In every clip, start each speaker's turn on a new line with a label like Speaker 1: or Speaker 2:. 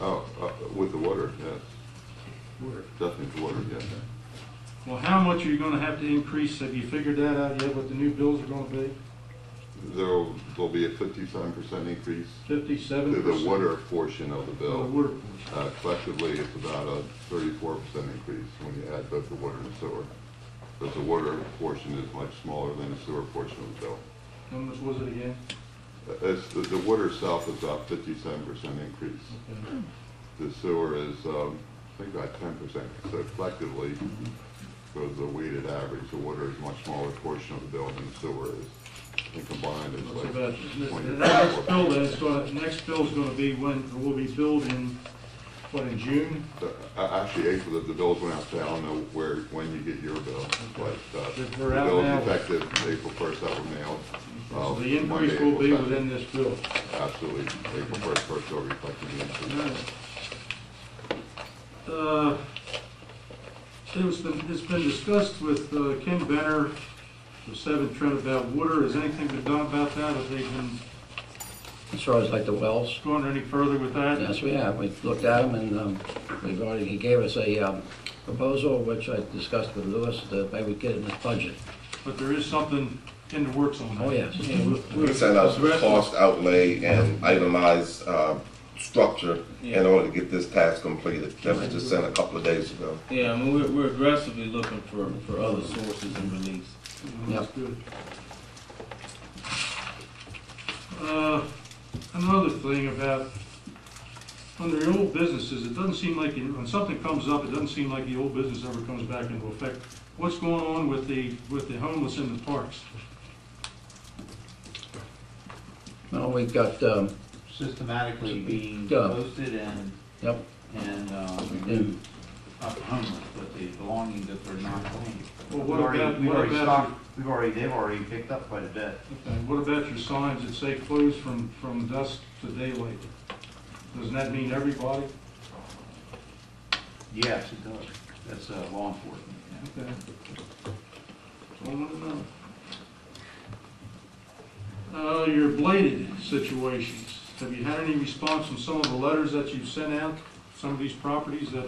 Speaker 1: Oh, uh, with the water, yeah,
Speaker 2: Where?
Speaker 1: definitely the water, yeah.
Speaker 2: Well, how much are you gonna have to increase? Have you figured that out yet, what the new bills are gonna be?
Speaker 1: There'll, there'll be a fifty-seven percent increase
Speaker 2: Fifty-seven
Speaker 1: to
Speaker 2: percent?
Speaker 1: the water portion of the
Speaker 2: The
Speaker 1: bill.
Speaker 2: water portion.
Speaker 1: Uh, collectively, it's about a thirty-four percent increase when you add both the water and the sewer. But the water portion is much smaller than the sewer portion of the bill.
Speaker 2: How much was it again?
Speaker 1: Uh, It's, the, the water itself is about fifty-seven percent increase.
Speaker 2: Okay.
Speaker 1: The sewer is, um, I think about ten percent, so collectively, goes the weighted average, the water is a much smaller portion of the bill than the sewer is. And combined, it's
Speaker 2: That's
Speaker 1: like
Speaker 2: about,
Speaker 1: twenty.
Speaker 2: the next bill then is gonna, next bill's gonna be when, it will be billed in, what, in June?
Speaker 1: So, a- Actually, April, the- the bills went out today, I don't know where, when you get your bill, but, uh, the
Speaker 2: They're- they're out now.
Speaker 1: bill's effective April first, that were mailed.
Speaker 2: So
Speaker 1: uh,
Speaker 2: the
Speaker 1: Monday,
Speaker 2: increase will be
Speaker 1: April 2nd.
Speaker 2: within this bill.
Speaker 1: Absolutely, April first, first, will reflect the increase.
Speaker 2: Uh, It's been, it's been discussed with uh, Ken Benner, the seventh trend about water. Has anything been done about that? Have they been
Speaker 3: As far as like the wells,
Speaker 2: going any further with that?
Speaker 3: yes, we have, we looked at them and um, we've already, he gave us a um, proposal, which I discussed with Lewis, that they would get in his budget.
Speaker 2: But there is something in the works on that.
Speaker 3: Oh, yes.
Speaker 4: We can send out
Speaker 2: That's right.
Speaker 4: cost outlay and itemized uh, structure in order to get this task completed. That was just sent a couple of days ago.
Speaker 5: Yeah, I mean, we're, we're aggressively looking for, for other sources and reliefs.
Speaker 2: That's good. Uh, Another thing about, under the old businesses, it doesn't seem like, when something comes up, it doesn't seem like the old business ever comes back into effect. What's going on with the, with the homeless in the parks?
Speaker 3: Well, we've got, um,
Speaker 6: systematically being
Speaker 3: Yeah.
Speaker 6: posted and,
Speaker 3: yep,
Speaker 6: and, uh,
Speaker 3: and
Speaker 6: not homeless, but the belongings that they're not claiming.
Speaker 2: Well, what
Speaker 6: We've already-
Speaker 2: about-
Speaker 6: We've
Speaker 2: what
Speaker 6: already
Speaker 2: about-
Speaker 6: stocked, we've already, they've already picked up quite a bit.
Speaker 2: And what about your signs that say closed from, from dusk to daylight? Doesn't that mean everybody?
Speaker 6: Yes, it does. That's, uh, law enforcement, yeah.
Speaker 2: Okay. That's all I wanna know. Uh, your bladed situations, have you had any response from some of the letters that you've sent out? Some of these properties that,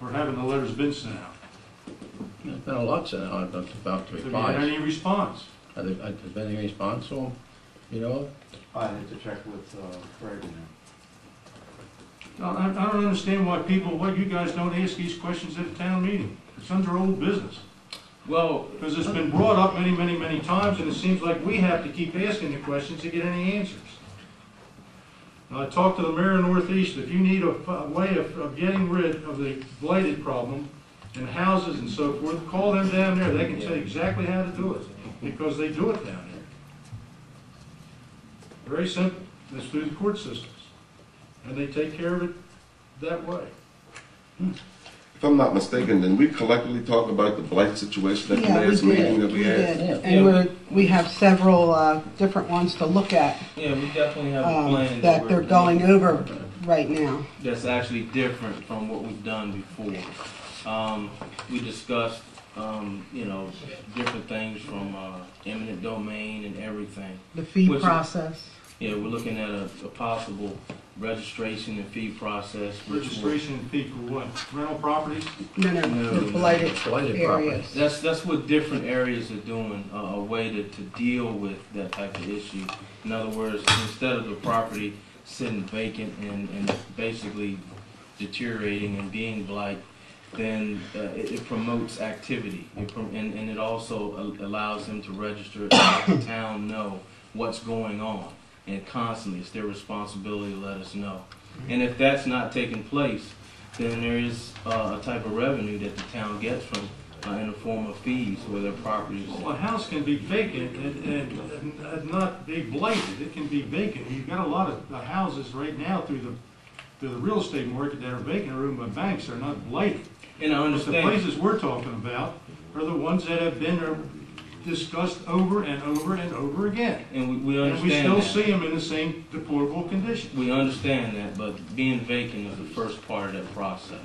Speaker 2: or haven't the letters been sent out?
Speaker 3: there's been a lot sent out about the
Speaker 2: Have you had
Speaker 3: replies.
Speaker 2: any response?
Speaker 3: Have there has there been any response to them, you know?
Speaker 6: I had to check with, uh, Greg on that.
Speaker 2: I, I I don't understand why people, why you guys don't ask these questions at a town meeting. It's under old business.
Speaker 5: Well,
Speaker 2: Because it's been brought up many, many, many times, and it seems like we have to keep asking the questions to get any answers. And I talked to the mayor of Northeast, if you need a a way of, of getting rid of the blighted problem and houses and so forth, call them down there, they can tell you exactly how to do it, because they do it down there. Very simple, it's through the court systems, and they take care of it that way.
Speaker 4: If I'm not mistaken, then we collectively talked about the blight situation at the
Speaker 7: Yeah, we
Speaker 4: last meeting that
Speaker 7: did, we
Speaker 4: we had.
Speaker 7: did.
Speaker 5: Yeah.
Speaker 7: And we're, we have several, uh, different ones to look at,
Speaker 5: yeah, we definitely have a
Speaker 7: um,
Speaker 5: plan.
Speaker 7: that
Speaker 5: we're
Speaker 7: they're
Speaker 5: doing
Speaker 7: going over right now.
Speaker 5: That's actually different from what we've done before. Um, we discussed, um, you know, different things from, uh, eminent domain and everything.
Speaker 7: The fee
Speaker 5: Which-
Speaker 7: process,
Speaker 5: Yeah, we're looking at a, a possible registration and fee process. which will-
Speaker 2: Registration and fee for what, rental properties?
Speaker 7: no, no,
Speaker 5: No,
Speaker 7: the
Speaker 5: no,
Speaker 7: blighted
Speaker 3: Blighted property.
Speaker 7: areas.
Speaker 5: That's, that's what different areas are doing, uh, a way to, to deal with that type of issue. In other words, instead of the property sitting vacant and, and basically deteriorating and being blight, then uh, it, it promotes activity. It prom- and, and it also a- allows them to register and let the town know what's going on. And constantly, it's their responsibility to let us know. And if that's not taking place, then there is uh, a type of revenue that the town gets from uh, in the form of fees where their properties.
Speaker 2: Well, a house can be vacant and, and, and not be blighted, it can be vacant. You've got a lot of uh, houses right now through the, through the real estate market that are vacant, or owned by banks, they're not blighted.
Speaker 5: And I
Speaker 2: But the
Speaker 5: understand.
Speaker 2: places we're talking about are the ones that have been uh, discussed over and over and over again.
Speaker 5: And we, we
Speaker 2: And we
Speaker 5: understand
Speaker 2: still
Speaker 5: that.
Speaker 2: see them in the same deplorable condition.
Speaker 5: We understand that, but being vacant is the first part of that process.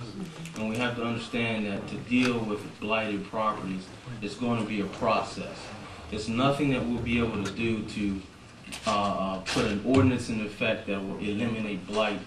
Speaker 5: And we have to understand that to deal with blighted properties, it's going to be a process. It's nothing that we'll be able to do to uh, uh, put an ordinance in effect that will eliminate blight